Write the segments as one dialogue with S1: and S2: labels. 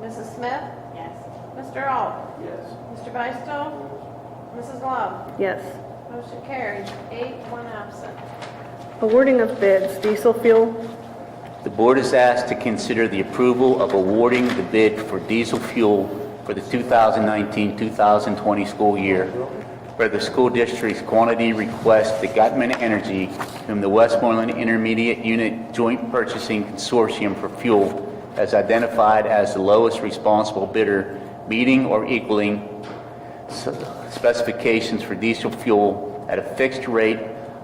S1: Mrs. Smith?
S2: Yes.
S1: Mr. Al?
S3: Yes.
S1: Mr. Beistel? Mrs. Love?
S4: Yes.
S1: Motion carries, eight, one absent.
S4: Awarding of bids, diesel fuel,
S5: The board is asked to consider the approval of awarding the bid for diesel fuel for the 2019-2020 school year for the school district's quantity request to Gutman Energy whom the Westmoreland Intermediate Unit Joint Purchasing Consortium for fuel as identified as the lowest responsible bidder, meeting or equaling specifications for diesel fuel at a fixed rate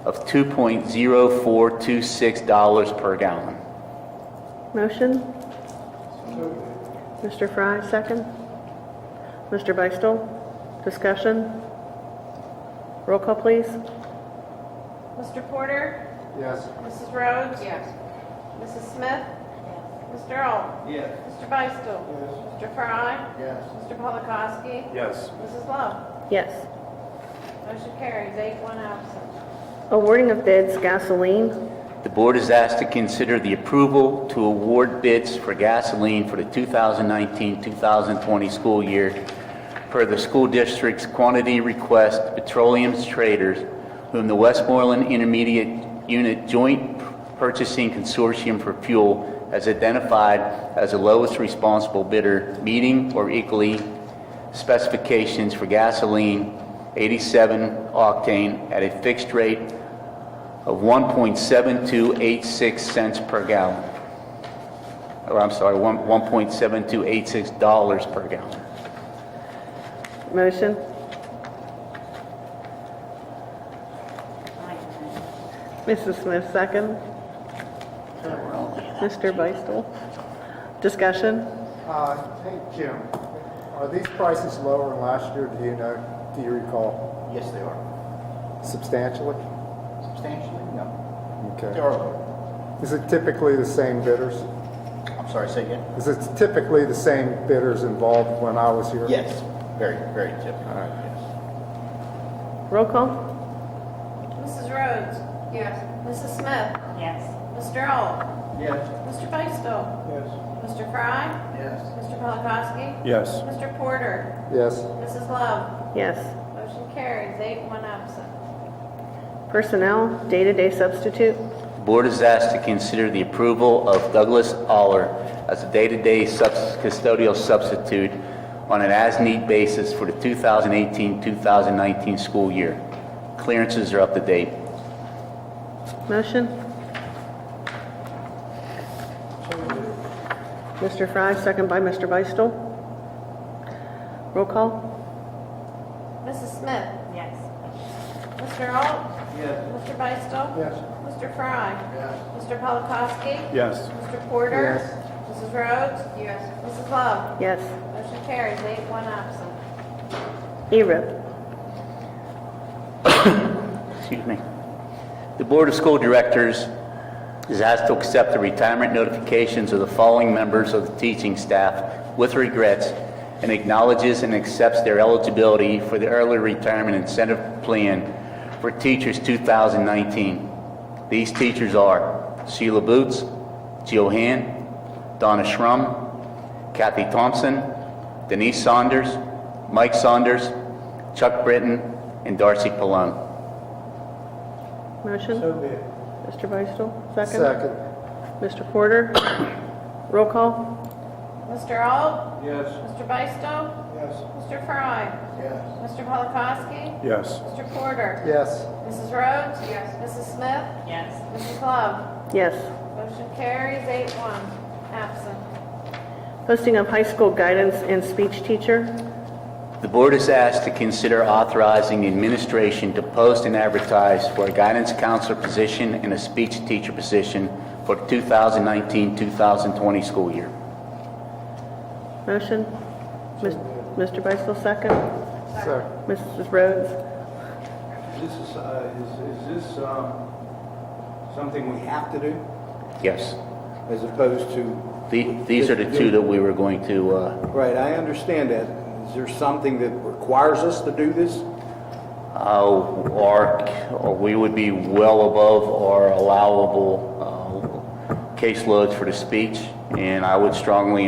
S5: of $2.0426 per gallon.
S4: motion? Mr. Fry, second. Mr. Beistel, discussion? Roll call, please.
S1: Mr. Porter?
S3: Yes.
S1: Mrs. Rhodes? Yes. Mrs. Smith? Mr. Al?
S3: Yes.
S1: Mr.
S3: Yes.
S1: Beistel? Mr. Fry?
S3: Yes.
S1: Mr. Polakowski?
S3: Yes.
S1: Mrs. Love?
S4: Yes.
S1: Motion carries, eight, one absent.
S4: Awarding of bids, gasoline,
S5: The board is asked to consider the approval to award bids for gasoline for the 2019-2020 school year per the school district's quantity request petroleum traders whom the Westmoreland Intermediate Unit Joint Purchasing Consortium for Fuel has identified as the lowest responsible bidder, meeting or equally specifications for gasoline 87 octane at a fixed rate of 1.7286 cents per gallon. Or I'm sorry, one- 1.7286 dollars per gallon.
S4: motion? Mrs. Smith, second. Mr. Beistel, discussion?
S6: Uh, Hey, Jim, are these prices lower than last year, do you know, do you recall
S3: Yes, they are.
S6: substantially?
S3: Substantially? No. They
S6: Okay.
S3: are lower.
S6: Is it typically the same bidders?
S3: I'm sorry, say again?
S6: Is it typically the same bidders involved when I was here?
S3: Yes. Very, very typical. Yes.
S4: Roll call?
S1: Mrs. Rhodes? Yes. Mrs. Smith?
S2: Yes.
S1: Mr. Al?
S3: Yes.
S1: Mr. Beistel?
S3: Yes.
S1: Mr. Fry?
S3: Yes.
S1: Mr. Polakowski?
S6: Yes.
S1: Mr. Porter?
S6: Yes.
S1: Mrs. Love?
S4: Yes.
S1: Motion carries, eight, one absent.
S4: Personnel, day-to-day substitute,
S5: The board is asked to consider the approval of Douglas Aller as a day-to-day subs- custodial substitute on an as-need basis for the 2018-2019 school year. Clearances are up to date.
S4: motion? Mr. Fry, second by Mr. Beistel. Roll call?
S1: Mrs. Smith?
S2: Yes.
S1: Mr. Alt?
S3: Yes.
S1: Mr. Beistel?
S6: Yes.
S1: Mr. Fry?
S3: Yes.
S1: Mr. Polakowski?
S6: Yes.
S1: Mr. Porter?
S6: Yes.
S1: Mrs. Rhodes? Yes. Mrs. Love?
S4: Yes.
S1: Motion carries, eight, one absent.
S4: ERIP,
S5: excuse me. The Board of School Directors is asked to accept the retirement notifications of the following members of the teaching staff with regrets and acknowledges and accepts their eligibility for the early retirement incentive plan for teachers 2019. These teachers are Sheila Boots, Jill Han, Donna Schrum, Kathy Thompson, Denise Saunders, Mike Saunders, Chuck Britton, and Darcy Pallone.
S4: motion? Mr. Beistel, second?
S6: Second.
S4: Mr. Porter? Roll call?
S1: Mr. Alt?
S3: Yes.
S1: Mr. Beistel?
S3: Yes.
S1: Mr. Fry?
S3: Yes.
S1: Mr. Polakowski?
S6: Yes.
S1: Mr. Porter?
S6: Yes.
S1: Mrs. Rhodes? Yes. Mrs. Smith?
S2: Yes.
S1: Mrs. Love?
S4: Yes.
S1: Motion carries, eight, one absent.
S4: Posting of high school guidance and speech teacher,
S5: The board is asked to consider authorizing the administration to post and advertise for a guidance counselor position and a speech teacher position for 2019-2020 school year.
S4: motion? Mis- Mr. Beistel, second?
S6: Second.
S4: Mrs. Rhodes?
S7: This is, uh, is, is this, um, something we have to do
S5: Yes.
S7: as opposed to?
S5: The- These are the two that we were going to, uh,
S7: Right, I understand that. Is there something that requires us to do this?
S5: uh, our- or we would be well above our allowable uh, caseloads for the speech, and I would strongly